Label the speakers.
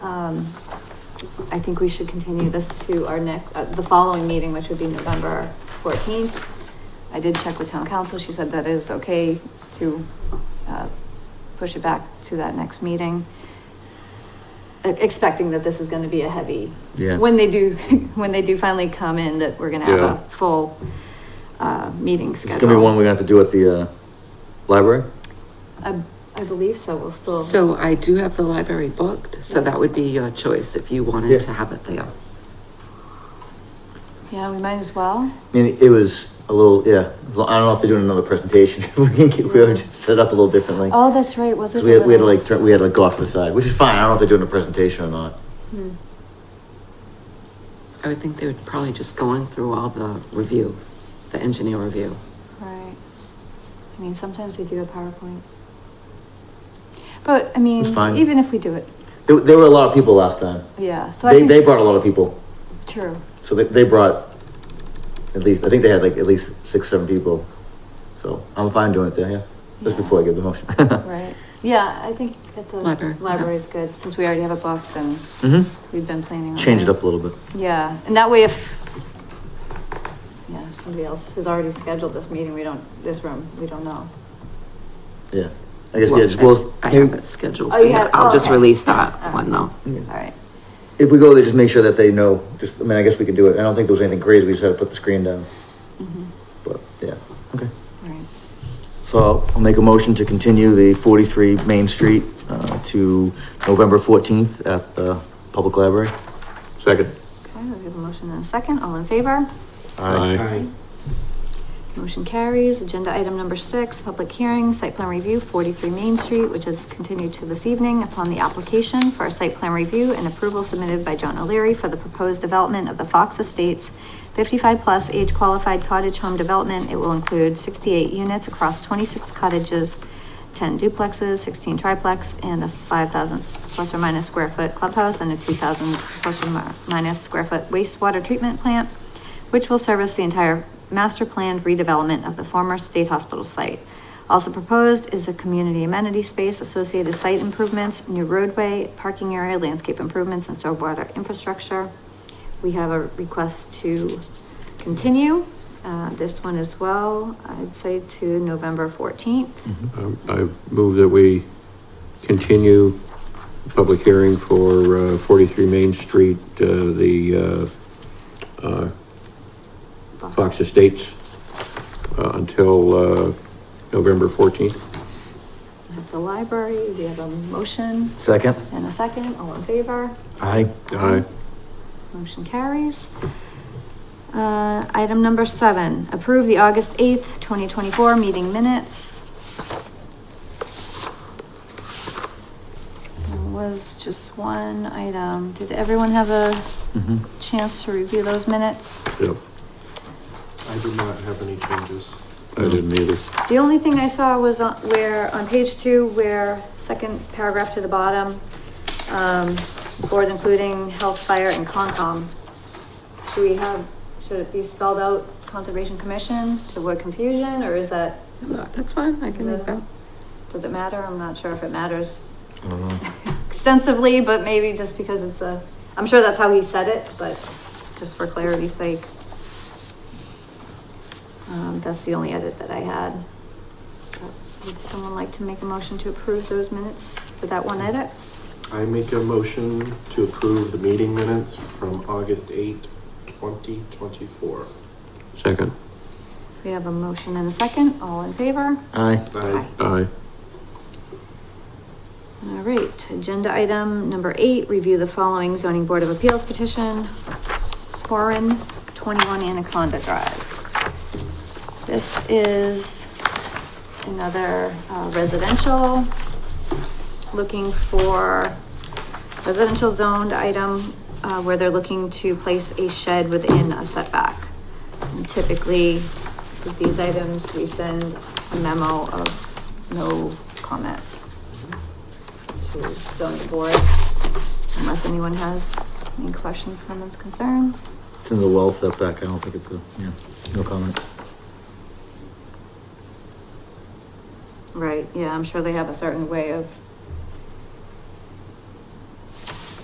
Speaker 1: um, I think we should continue this to our next, uh, the following meeting, which would be November fourteenth. I did check with town council. She said that is okay to, uh, push it back to that next meeting. e- Expecting that this is gonna be a heavy,
Speaker 2: Yeah.
Speaker 1: when they do, when they do finally come in, that we're gonna have
Speaker 2: Yeah.
Speaker 1: a full, uh, meeting
Speaker 2: It's
Speaker 1: schedule.
Speaker 2: gonna be one we're gonna have to do at the, uh, library?
Speaker 1: I, I believe so, we'll still.
Speaker 3: So I do have the library booked, so that would be your choice if you wanted to
Speaker 2: Yeah.
Speaker 3: have it there.
Speaker 1: Yeah, we might as well.
Speaker 2: I mean, it was a little, yeah, I don't know if they're doing another presentation, we can get, we would just set up a little differently.
Speaker 1: Oh, that's right, was
Speaker 2: 'Cause
Speaker 1: it?
Speaker 2: we had, we had to like, turn- we had to like go off to the side, which is fine, I don't know if they're doing a presentation or not.
Speaker 1: Hmm.
Speaker 3: I would think they would probably just go on through all the review, the engineer review.
Speaker 1: Right. I mean, sometimes they do a PowerPoint. But, I mean,
Speaker 2: It's fine.
Speaker 1: even if we do it,
Speaker 2: There, there were a lot of people last time.
Speaker 1: yeah, so I
Speaker 2: They,
Speaker 1: think.
Speaker 2: they brought a lot of people,
Speaker 1: True,
Speaker 2: so they, they brought at least, I think they had like at least six, seven people. So I'm fine doing it there, yeah, just
Speaker 1: Yeah.
Speaker 2: before I give the motion.
Speaker 1: right. Yeah, I think at the.
Speaker 3: Library, okay.
Speaker 1: Library's good, since we already have a book, then
Speaker 2: hmm
Speaker 1: we've been planning on.
Speaker 2: change it
Speaker 1: that.
Speaker 2: up a little bit.
Speaker 1: Yeah, and that way if, yeah, if somebody else has already scheduled this meeting, we don't, this room, we don't know.
Speaker 2: Yeah, I guess,
Speaker 3: Well,
Speaker 2: yeah, just, well,
Speaker 3: I have it scheduled
Speaker 1: Oh,
Speaker 3: for
Speaker 1: you
Speaker 3: you.
Speaker 1: have-
Speaker 3: I'll
Speaker 1: oh,
Speaker 3: just
Speaker 1: okay.
Speaker 3: release that
Speaker 1: Alright.
Speaker 3: one though.
Speaker 1: All right.
Speaker 2: if we go there, just make sure that they know, just, I mean, I guess we can do it, I don't think there was anything crazy, we just had to put the screen down,
Speaker 1: Mhm.
Speaker 2: but, yeah, okay.
Speaker 1: All right.
Speaker 2: So I'll make a motion to continue the forty-three Main Street, uh, to November fourteenth at the Public Library.
Speaker 4: Second.
Speaker 1: Okay, we have a motion and a second. All in favor?
Speaker 4: Aye.
Speaker 1: Motion carries. Agenda item number six, public hearing, site plan review, forty-three Main Street, which is continued to this evening upon the application for a site plan review and approval submitted by John O'Leary for the proposed development of the Fox Estates fifty-five plus age-qualified cottage home development. It will include sixty-eight units across twenty-six cottages, ten duplexes, sixteen triplex, and a five thousand plus or minus square foot clubhouse and a two thousand plus or mi- minus square foot wastewater treatment plant which will service the entire master planned redevelopment of the former state hospital site. Also proposed is a community amenity space, associated site improvements, new roadway, parking area, landscape improvements, and stormwater infrastructure. We have a request to continue, uh, this one as well, I'd say to November fourteenth.
Speaker 2: Mm. Mm-hmm.
Speaker 4: I Um, I move that we continue the public hearing for uh, 43 Main Street, uh, the uh, uh, Fox Estates, uh, until uh, November 14th.
Speaker 1: At the library, we have a motion
Speaker 2: Second?
Speaker 1: and a second, all in favor?
Speaker 2: Aye.
Speaker 4: Aye.
Speaker 1: Motion carries. Uh, item number seven, approve the August eighth, twenty twenty-four meeting minutes. There was just one item. Did everyone have a
Speaker 2: Mhm.
Speaker 1: chance to review those minutes?
Speaker 4: Yep,
Speaker 5: I did not have any changes.
Speaker 4: I didn't either.
Speaker 1: The only thing I saw was on, where, on page two, where, second paragraph to the bottom, um, boards including health, fire, and Concom. Should we have, should it be spelled out Conservation Commission to avoid confusion, or is that,
Speaker 3: That's fine, I can make that.
Speaker 1: does it matter? I'm not sure if it matters
Speaker 2: I don't know.
Speaker 1: extensively, but maybe just because it's a, I'm sure that's how he said it, but just for clarity's sake. Um, that's the only edit that I had. Uh, Would someone like to make a motion to approve those minutes with that one edit?
Speaker 5: I make a motion to approve the meeting minutes from August 8, 2024.
Speaker 4: Second.
Speaker 1: We have a motion and a second, all in favor?
Speaker 2: Aye.
Speaker 5: I
Speaker 4: Aye.
Speaker 1: All right, agenda item number eight, review the following zoning board of appeals petition. Warren, twenty-one Anaconda Drive. This is another uh, residential, looking for residential zoned item, uh, where they're looking to place a shed within a setback. And Typically, with these items, we send a memo of no comment to zone the board, unless anyone has any questions, comments, concerns.
Speaker 2: It's in the well setback, I don't think it's a, yeah, no comment.
Speaker 1: Right, yeah, I'm sure they have a certain way of